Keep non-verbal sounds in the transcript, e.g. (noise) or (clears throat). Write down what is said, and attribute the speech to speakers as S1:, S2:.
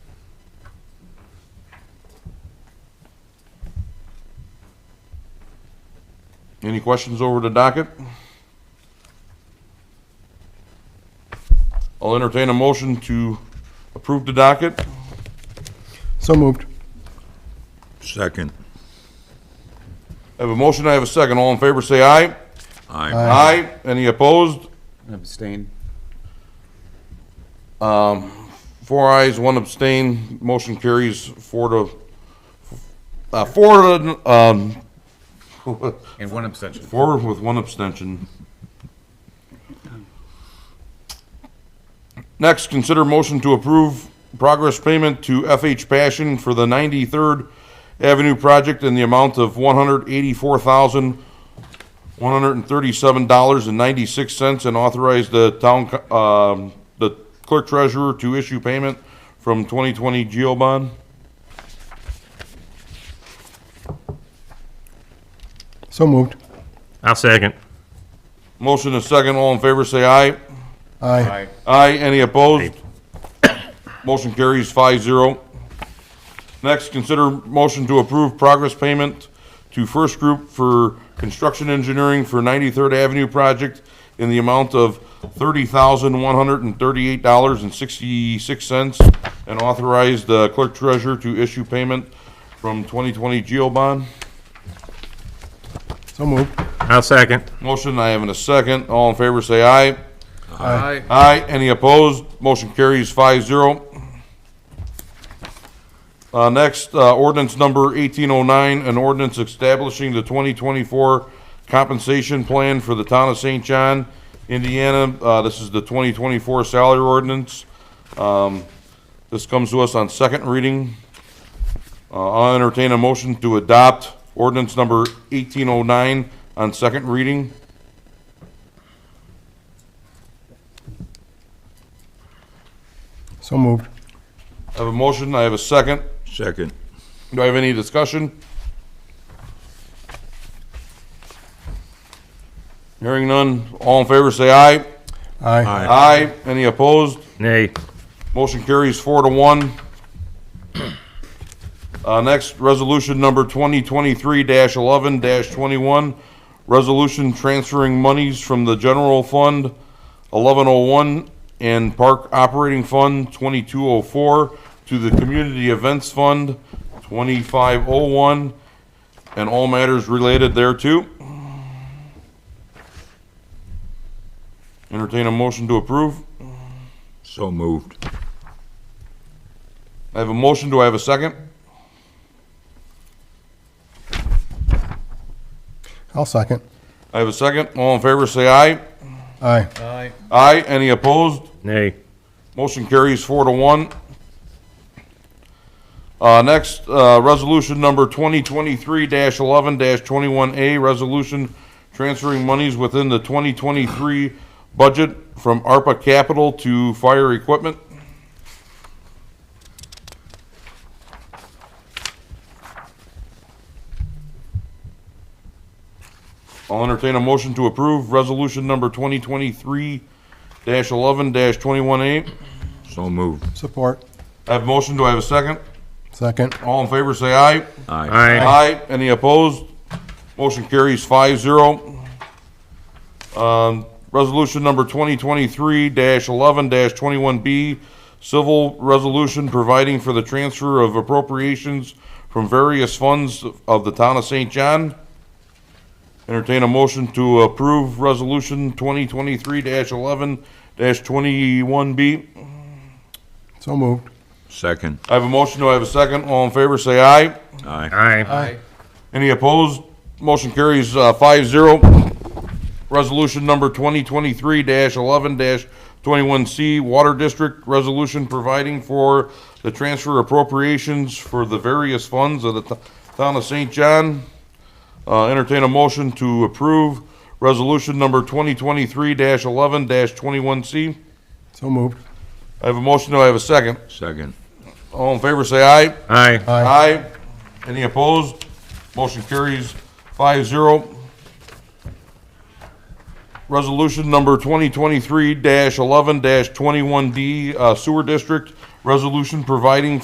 S1: Any questions over the docket? I'll entertain a motion to approve the docket.
S2: So moved.
S3: Second.
S1: I have a motion, I have a second. All in favor, say aye.
S3: Aye.
S2: Aye.
S1: Any opposed?
S4: Abstain.
S1: Four ayes, one abstain. Motion carries four to, uh, four to, um,
S4: And one abstention.
S1: four with one abstention. Next, consider motion to approve progress payment to FH Passion for the 93rd Avenue project in the amount of $184,137.96 and authorize the town, co- um, the clerk treasurer to issue payment from 2020 Geo bond.
S2: So moved.
S5: I'll second.
S1: Motion is second. All in favor, say aye.
S2: Aye.
S1: Aye, any opposed? Motion carries five zero. Next, consider motion to approve progress payment to First Group for construction engineering for 93rd Avenue project in the amount of $30,138.66 and authorize the clerk treasurer to issue payment from 2020 Geo bond.
S2: So moved.
S5: I'll second.
S1: Motion, I have in a second. All in favor, say aye.
S4: Aye.
S1: Aye, any opposed? Motion carries five zero. Uh, next, uh, ordinance number eighteen oh nine, an ordinance establishing the twenty twenty-four compensation plan for the town of St. John, Indiana. Uh, this is the twenty twenty-four salary ordinance. Um, this comes to us on second reading. Uh, I'll entertain a motion to adopt ordinance number eighteen oh nine on second reading.
S2: So moved.
S1: I have a motion, I have a second.
S3: Second.
S1: Do I have any discussion? Hearing none, all in favor say aye.
S2: Aye.
S1: Aye. Any opposed?
S5: Nay.
S1: Motion carries four to one. (clears throat) Uh, next, resolution number twenty twenty-three eleven twenty-one. Resolution transferring monies from the general fund eleven oh one and park operating fund twenty-two oh four to the community events fund twenty-five oh one and all matters related thereto. Entertain a motion to approve.
S3: So moved.
S1: I have a motion, do I have a second?
S2: I'll second.
S1: I have a second. All in favor, say aye.
S2: Aye.
S4: Aye.
S1: Aye. Any opposed?
S5: Nay.
S1: Motion carries four to one. Uh, next, uh, resolution number twenty twenty-three eleven twenty-one A, resolution transferring monies within the twenty twenty-three budget from ARPA capital to fire equipment. I'll entertain a motion to approve resolution number twenty twenty-three eleven twenty-one A.
S3: So moved.
S2: Support.
S1: I have a motion, do I have a second?
S2: Second.
S1: All in favor, say aye.
S3: Aye.
S5: Aye.
S1: Aye. Any opposed? Motion carries five zero. Um, resolution number twenty twenty-three eleven twenty-one B, civil resolution providing for the transfer of appropriations from various funds of the town of St. John. Entertain a motion to approve resolution twenty twenty-three eleven twenty-one B.
S2: So moved.
S3: Second.
S1: I have a motion, do I have a second? All in favor, say aye.
S3: Aye.
S5: Aye.
S4: Aye.
S1: Any opposed? Motion carries uh, five zero. Resolution number 2023-11-21C, Water District Resolution providing for the transfer appropriations for the various funds of the to- Town of St. John. Uh, Entertain a motion to approve Resolution number 2023-11-21C.
S2: So moved.
S1: I have a motion, do I have a second?
S3: Second.
S1: All in favor, say aye.
S5: Aye.
S2: Aye.
S1: Aye. Any opposed? Motion carries five zero. Resolution number 2023-11-21D, uh, Sewer District, resolution providing